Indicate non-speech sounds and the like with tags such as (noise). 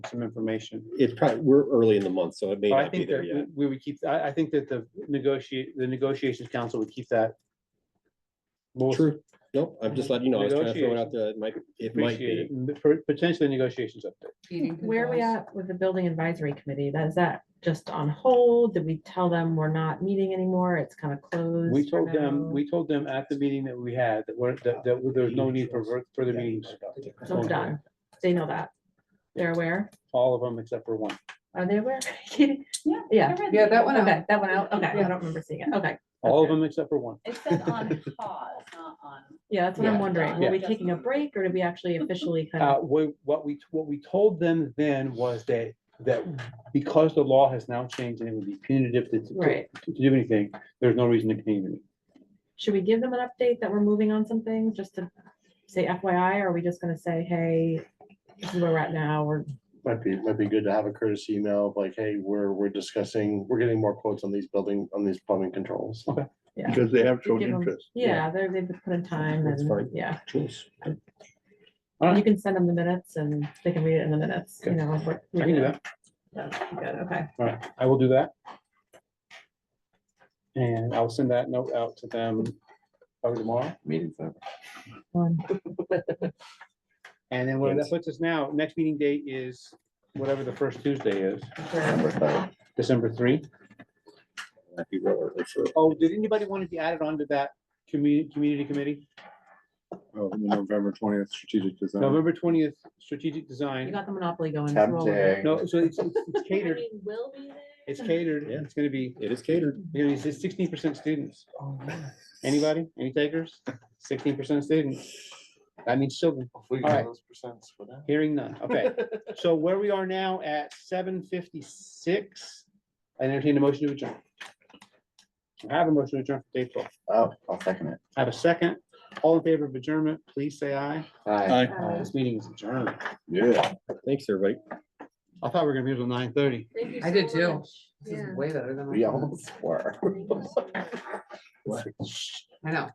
some information. It's probably, we're early in the month, so it may But I not be think there that yet. we we would keep, I, I think that the negotiate, the negotiations council would keep that. more True. Nope, I'm just letting you know. I was trying to throw it out there. It might, it might appreciated, be. m- pot- potentially negotiations up there. Where are we at with the building advisory committee? That is that just on hold? Did we tell them we're not meeting anymore? It's kind of closed? We for told now? them, we told them at the meeting that we had, that we're, that, that there's no need for ver- further meetings. So it's done. They know that. They're aware. All of them except for one. Are they aware? (laughs) Katie? Yeah. Yeah. (laughs) Yeah, that one out. Okay, that went out. Okay, I Yeah. don't remember seeing it. Okay. All of them except for one. It says on pause, not on. Yeah, that's what I'm Yeah. wondering. Were Yeah. we taking a break or did (laughs) we actually officially kind Uh, of? what, what we, what we told them then was that, that because the law has now changed and it would be punitive to, to- Right. to do anything, there's no reason to continue. Should we give them an update that we're moving on something just to say FYI? Or are we just gonna say, hey, this is where we're at now? We're Might be, might be good to have a courtesy email of like, hey, we're, we're discussing, we're getting more quotes on these building, on these plumbing controls. yeah. Because they have You shown give 'em- interest. Yeah, they're, they've put in time That's and, fine. yeah, Jeez. you can send them the minutes and they can read it in the minutes, you Okay. know. of what I we can do did. that. That's Good, okay. All right, I will do that. And I'll send that note out to them probably tomorrow. Meeting's over. One. And then what that puts us now, next meeting date is whatever the first Tuesday is, Sure. December three. Might be real early for- Oh, did anybody want to be added onto that community, community committee? Oh, November twentieth, strategic design. November twentieth, strategic You design. got the monopoly going. Temp roll with day. it. No, so it's it's- it's catered, Will be there. it's catered, Yeah. it's gonna be, It is catered. you know, it's sixteen percent students. Anybody, any takers? Sixteen percent students. That means children. We can All have right. those percents for that. Hearing none. Okay, so where we are now at seven fifty-six, I entertain a motion to adjourn. I have a motion to adjourn for Dave Paul. Oh, I'll second it. I have a second. All in favor of adjournment, please say aye. Aye. Uh, This meeting is adjourned. Yeah. Thanks, everybody. I thought we were gonna be here till nine thirty. Thank you I did so too. much. This is Yeah. way better than. We almost were. Thank you so much. I know.